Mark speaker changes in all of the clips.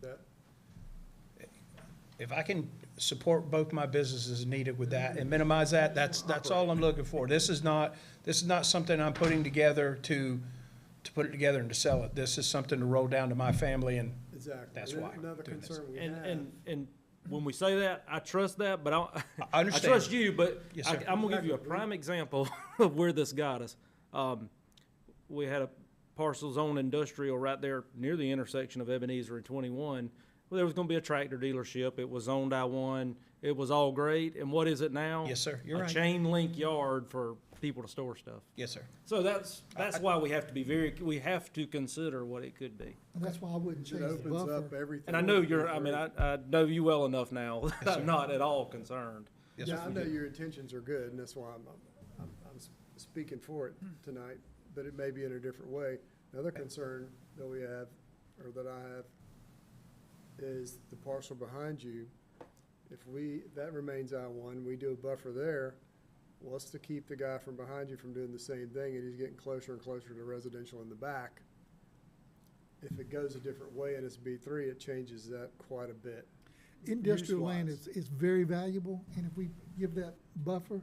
Speaker 1: that?
Speaker 2: If I can support both my businesses needed with that and minimize that, that's, that's all I'm looking for. This is not, this is not something I'm putting together to, to put it together and to sell it. This is something to roll down to my family and
Speaker 1: Exactly.
Speaker 2: That's
Speaker 1: And
Speaker 2: why I'm
Speaker 1: Another
Speaker 2: doing this.
Speaker 1: concern we
Speaker 3: And,
Speaker 1: have.
Speaker 3: and, and when we say that, I trust that, but I, don't-
Speaker 2: I
Speaker 3: I
Speaker 2: understand.
Speaker 3: trust you, but
Speaker 2: Yes,
Speaker 3: I,
Speaker 2: sir.
Speaker 3: I'm gonna give you a prime example of where this got us. Um, we had a parcel zone industrial right there near the intersection of Ebenezer and twenty-one. Well, there was gonna be a tractor dealership. It was zoned I one. It was all great. And what is it now?
Speaker 2: Yes, sir. You're right.
Speaker 3: A chain link yard for people to store stuff.
Speaker 2: Yes, sir.
Speaker 3: So that's, that's why we have to be very, we have to consider what it could be.
Speaker 4: And That's why I wouldn't change
Speaker 1: It
Speaker 4: the
Speaker 1: opens up
Speaker 4: buffer.
Speaker 1: everything.
Speaker 3: And I know you're, I mean, I, I know you well enough now. that I'm not at all concerned.
Speaker 2: Yes,
Speaker 1: Yeah, I
Speaker 2: sir.
Speaker 1: know your intentions are good, and that's why I'm, I'm- I'm, I'm s- speaking for it
Speaker 2: Hmm.
Speaker 1: tonight, but it may be in a different way. Another concern that we have, or that I have, is the parcel behind you. If we, that remains I one, we do a buffer there, what's to keep the guy from behind you from doing the same thing, and he's getting closer and closer to residential in the back? If it goes a different way and it's B three, it changes that quite a bit.
Speaker 4: Industrial land
Speaker 1: use-wise.
Speaker 4: is, is very valuable, and if we give that buffer,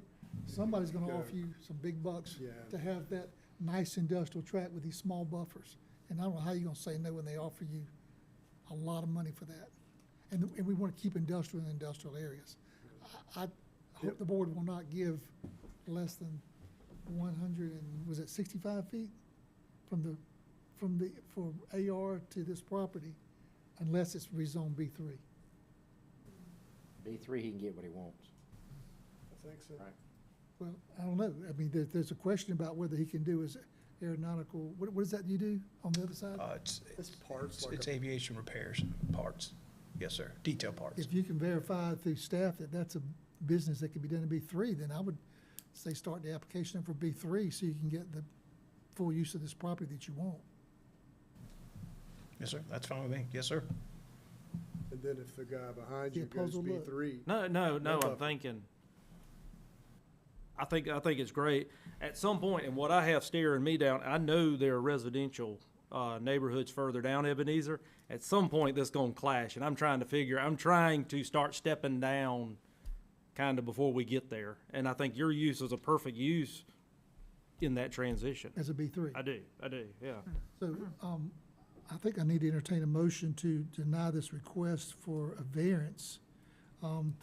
Speaker 4: somebody's gonna
Speaker 1: Yeah.
Speaker 4: offer you some big bucks
Speaker 1: Yeah.
Speaker 4: to have that nice industrial tract with these small buffers. And I don't know how you're gonna say no when they offer you a lot of money for that. And, and we wanna keep industrial in industrial areas. I, I hope the board will not give less than one hundred and, was it sixty-five feet? From the, from the, from AR to this property, unless it's rezoned B three.
Speaker 5: B three, he can get what he wants.
Speaker 1: I think so.
Speaker 4: Well, I don't know. I mean, there, there's a question about whether he can do his aeronautical, what, what is that you do on the other side?
Speaker 2: Uh, it's,
Speaker 1: It's parts
Speaker 2: it's-
Speaker 1: like a
Speaker 2: it's aviation repairs, parts. Yes, sir. Detail parts.
Speaker 4: If you can verify through staff that that's a business that can be done in B three, then I would say start the application for B three so you can get the full use of this property that you want.
Speaker 2: Yes, sir. That's fine with me. Yes, sir.
Speaker 1: And then if the guy behind
Speaker 4: Be
Speaker 1: you
Speaker 4: a
Speaker 1: goes
Speaker 4: puzzle
Speaker 1: B
Speaker 4: look.
Speaker 1: three,
Speaker 3: No, no, no,
Speaker 1: buffer.
Speaker 3: I'm thinking. I think, I think it's great. At some point, and what I have staring me down, I know there are residential, uh, neighborhoods further down Ebenezer. At some point, that's gonna clash, and I'm trying to figure, I'm trying to start stepping down kinda before we get there. And I think your use is a perfect use in that transition.
Speaker 4: As a B three.
Speaker 3: I do, I do, yeah.
Speaker 4: So, um, I think I need to entertain a motion to deny this request for a variance. Um,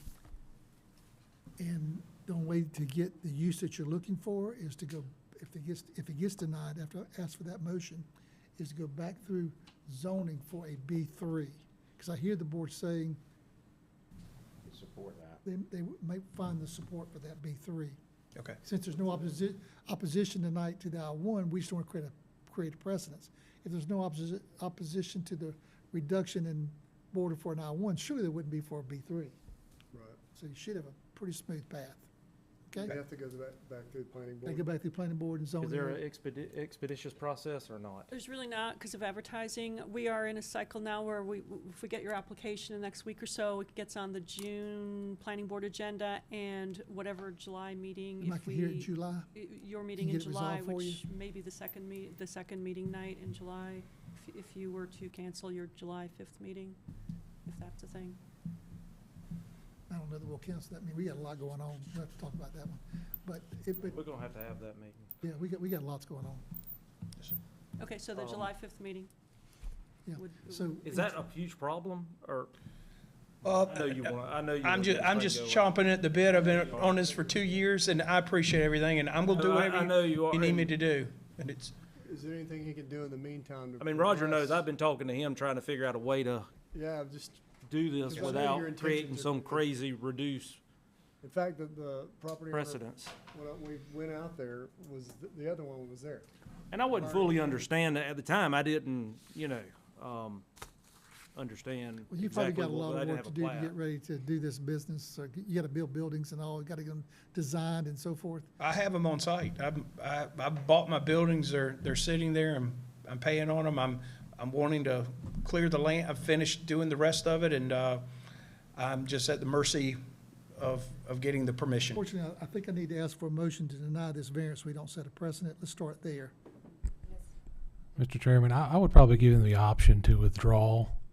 Speaker 4: and the only way to get the use that you're looking for is to go, if it gets, if it gets denied after I ask for that motion, is to go back through zoning for a B three. Cause I hear the board saying
Speaker 5: He'd support that.
Speaker 4: they, they may find the support for that B three.
Speaker 2: Okay.
Speaker 4: Since there's no opposi- opposition tonight to the I one, we just want to create a, create a precedence. If there's no opposi- opposition to the reduction in border for an I one, surely there wouldn't be for a B three.
Speaker 1: right,
Speaker 4: So you should have a pretty smooth path,
Speaker 1: you
Speaker 4: okay?
Speaker 1: have to go back, back through the planning
Speaker 4: They go
Speaker 1: board.
Speaker 4: back to the planning board and zoning.
Speaker 3: Is there an expedi- expeditious process or not?
Speaker 6: There's really not, because of advertising. We are in a cycle now where we, if we get your application in the next week or so, it gets on the June planning board agenda and whatever July meeting,
Speaker 4: And I
Speaker 6: if
Speaker 4: can hear it in
Speaker 6: we,
Speaker 4: July.
Speaker 6: y- your meeting in
Speaker 4: get it
Speaker 6: July,
Speaker 4: resolved for you?
Speaker 6: which may be the second meet, the second meeting night in July, if- if you were to cancel your July fifth meeting, if that's a thing.
Speaker 4: I don't know that we'll cancel that. I mean, we got a lot going on. We'll have to talk about that one. But it, but,
Speaker 3: We're gonna have to have that meeting.
Speaker 4: yeah, we got, we got lots going on.
Speaker 6: Okay, so the
Speaker 3: Um,
Speaker 6: July fifth meeting.
Speaker 4: Yeah.
Speaker 6: would-
Speaker 4: So.
Speaker 3: Is that a huge problem, or?
Speaker 4: Oh.
Speaker 2: Uh,
Speaker 3: I know you want, I know you.
Speaker 2: I'm
Speaker 3: wanna
Speaker 2: just,
Speaker 3: get
Speaker 2: I'm
Speaker 3: this
Speaker 2: just
Speaker 3: thing going.
Speaker 2: chomping at the bit. I've been on this for two years and I appreciate everything and I'm gonna do
Speaker 3: No, I- I know
Speaker 2: whatever
Speaker 3: you
Speaker 2: you
Speaker 3: are.
Speaker 2: need me
Speaker 3: and-
Speaker 2: to do. And it's,
Speaker 1: Is there anything he can do in the meantime? to
Speaker 3: I mean, Roger
Speaker 1: progress?
Speaker 3: knows, I've been talking to him, trying to figure out a way to
Speaker 1: Yeah, I've just,
Speaker 3: do this
Speaker 1: Because I know
Speaker 3: without
Speaker 1: your intentions
Speaker 3: creating
Speaker 1: are-
Speaker 3: some crazy reduced
Speaker 1: in fact, the, the property owner,
Speaker 3: precedence.
Speaker 1: when I- we went out there, was, th- the other one was there.
Speaker 3: And I wouldn't fully understand it at the time, I didn't, you know, um, understand
Speaker 4: Well, you've probably
Speaker 3: exactly
Speaker 4: got a
Speaker 3: what,
Speaker 4: lot
Speaker 3: but I
Speaker 4: of
Speaker 3: didn't
Speaker 4: work
Speaker 3: have
Speaker 4: to
Speaker 3: a
Speaker 4: do to get
Speaker 3: plan.
Speaker 4: ready to do this business. So you gotta build buildings and all, you gotta get them designed and so forth.
Speaker 2: I have them on site. I'm, I, I bought my buildings. They're, they're sitting there. I'm, I'm paying on them. I'm, I'm wanting to clear the land. I've finished doing the rest of it and, uh, I'm just at the mercy of, of getting the permission.
Speaker 4: Fortunately, I I think I need to ask for a motion to deny this variance. We don't set a precedent. Let's start there.
Speaker 7: Mr. Chairman, I, I would probably give them the option to withdraw